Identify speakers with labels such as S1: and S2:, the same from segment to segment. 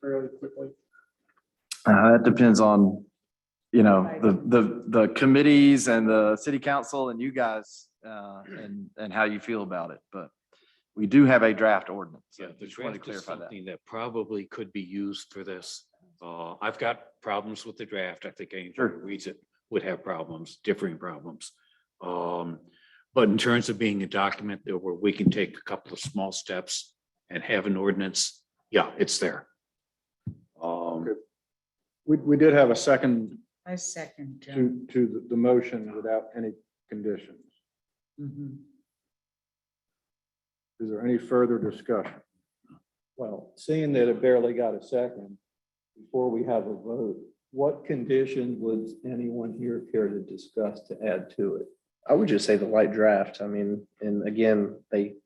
S1: fairly quickly?
S2: Uh, that depends on, you know, the, the, the committees and the city council and you guys, uh, and, and how you feel about it, but we do have a draft ordinance. so
S3: Yeah, the
S2: Just wanted to
S3: draft is
S2: clarify that.
S3: something that probably could be used for this. Uh, I've got problems with the draft. I think anyone
S2: Sure.
S3: who reads it would have problems, differing problems. Um, but in terms of being a document that where we can take a couple of small steps and have an ordinance, yeah, it's there. Um,
S4: We, we did have a second
S5: I second. John.
S4: to, to the, the motion without any conditions.
S1: Mm-hmm.
S5: Mhm.
S4: Is there any further discussion?
S6: Well, seeing that it barely got a second before we have a vote, what condition would anyone here care to discuss to add to it?
S7: I would just say the light draft. I mean, and again, they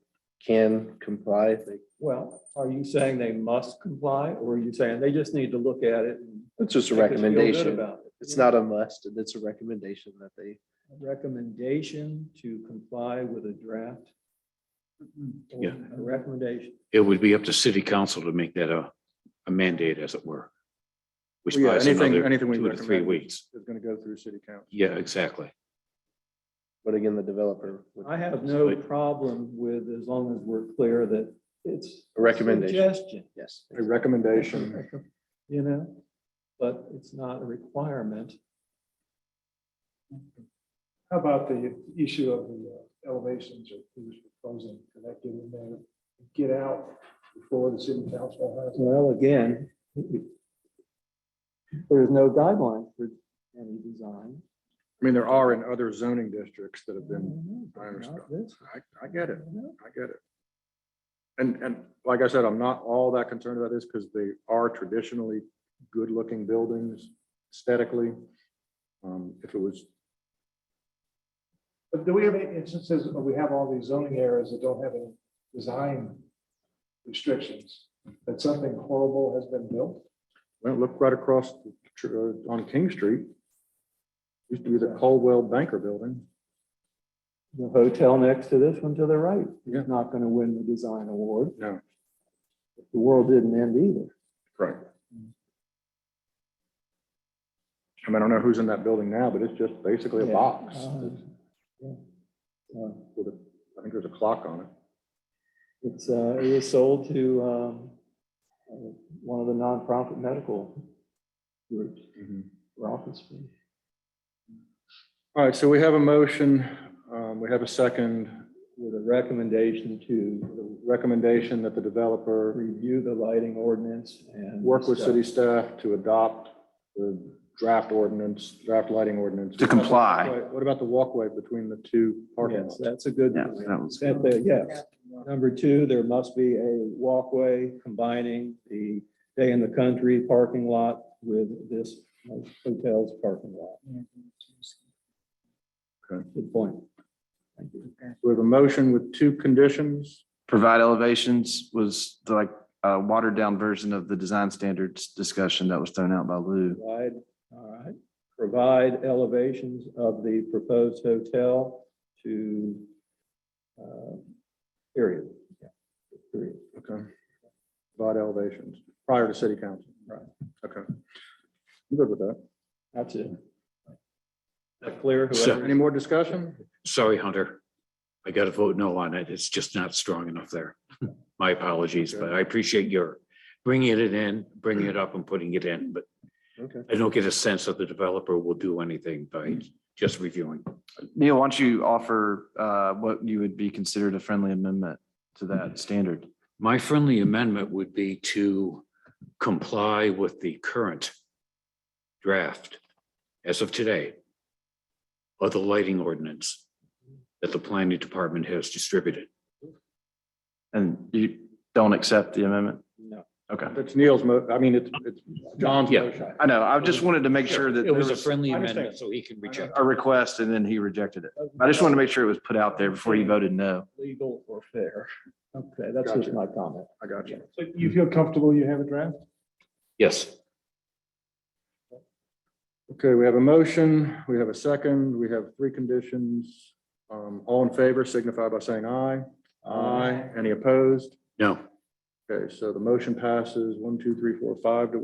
S7: can comply. if They
S6: Well, are you saying they must comply or are you saying they just need to look at it? and
S7: It's just a
S6: make us feel good
S7: recommendation.
S6: about it?
S7: It's not a must. It's a recommendation that they,
S6: A Recommendation to comply with a draft?
S5: Mhm.
S6: or
S3: Yeah.
S6: A recommendation.
S3: it would be up to city council to make that a, a mandate as it were. Which
S4: Yeah,
S3: buys
S4: anything-
S3: another
S4: anything we
S3: two to three
S4: recommend.
S3: weeks.
S4: It's gonna go through city council.
S3: Yeah, exactly.
S7: but again, the developer. would-
S6: I have no problem with, as long as we're clear that it's.
S7: A recommendation.
S6: Suggestion,
S7: Yes.
S4: A recommendation.
S6: you know, but it's not a requirement.
S1: How about the issue of the uh, elevations or who's proposing, can that get in there, get out before the city council has? it?
S6: Well, again, there's no guideline for any design.
S4: I mean, there are in other zoning districts that have been, I understand.
S6: Not this.
S4: I, I get it. I get it. And, and like I said, I'm not all that concerned about this because they are traditionally good-looking buildings aesthetically. Um, if it was,
S1: But do we have any instances, where we have all these zoning areas that don't have any design restrictions, that something horrible has been built?
S4: well, look right across the tr- uh, on King Street. Used to be the Caldwell Banker Building.
S6: The hotel next to this one to the right
S4: Yeah.
S6: is not gonna win the design award.
S4: No.
S6: The world didn't end either.
S4: Right. I mean, I don't know who's in that building now, but it's just basically a
S6: Yeah.
S4: box.
S6: Uh, yeah. Uh,
S4: with a- I think there's a clock on it.
S6: It's, uh, it was sold to, um, uh, one of the nonprofit medical groups,
S4: Mm-hmm.
S6: Rothsky.
S4: All right, so we have a motion, um, we have a second
S6: with a recommendation to
S4: recommendation that the developer
S6: review the lighting ordinance and.
S4: work with
S6: discuss-
S4: city staff to adopt the draft ordinance, draft lighting ordinance.
S2: To comply.
S4: What about the walkway between the two parking
S6: Yes,
S4: lots?
S6: that's a good.
S2: Yeah,
S6: point.
S2: that was
S6: That there- Yes. Number two, there must be a walkway combining the day in the country parking lot with this hotel's parking lot.
S5: Yeah,
S6: Good point. Thank you.
S5: okay.
S4: We have a motion with two conditions.
S2: Provide elevations was like a watered down version of the design standards discussion that was thrown out by Lou.
S6: Provide, all right, provide elevations of the proposed hotel to, uh, period. Yeah, Period.
S4: Okay. About elevations prior to city council.
S6: Right.
S4: Okay. I'm good with that.
S6: That's it. That clear?
S3: So-
S6: Whoever-
S4: Any more discussion?
S3: Sorry, Hunter. I got to vote no on it. It's just not strong enough there. My apologies, but I appreciate your bringing it in, bringing it up and putting it in, but
S4: Okay.
S3: I don't get a sense that the developer will do anything by just reviewing.
S2: Neil, why don't you offer, uh, what you would be considered a friendly amendment to
S3: Mm-hmm.
S2: that standard?
S3: My friendly amendment would be to comply with the current draft as of today of the lighting ordinance that the planning department has distributed.
S2: And you don't accept the amendment?
S6: No.
S2: Okay.
S4: It's Neil's mo, I mean, it's, it's John's
S3: Yeah.
S4: motion.
S2: I know. I just wanted to make sure that
S3: It
S2: there
S3: was a
S2: was
S3: friendly
S4: I understand.
S3: amendment, so he can reject.
S2: a request and then he rejected it. I just want to make sure it was put out there before you voted no.
S6: Legal or fair. Okay, that's just
S4: Gotcha.
S6: my comment.
S4: I got you.
S1: So you feel comfortable you have a draft?
S3: Yes.
S4: Okay, we have a motion, we have a second, we have three conditions. Um, all in favor signify by saying aye. Aye. Any opposed?
S3: No.
S4: Okay, so the motion passes one, two, three, four, five to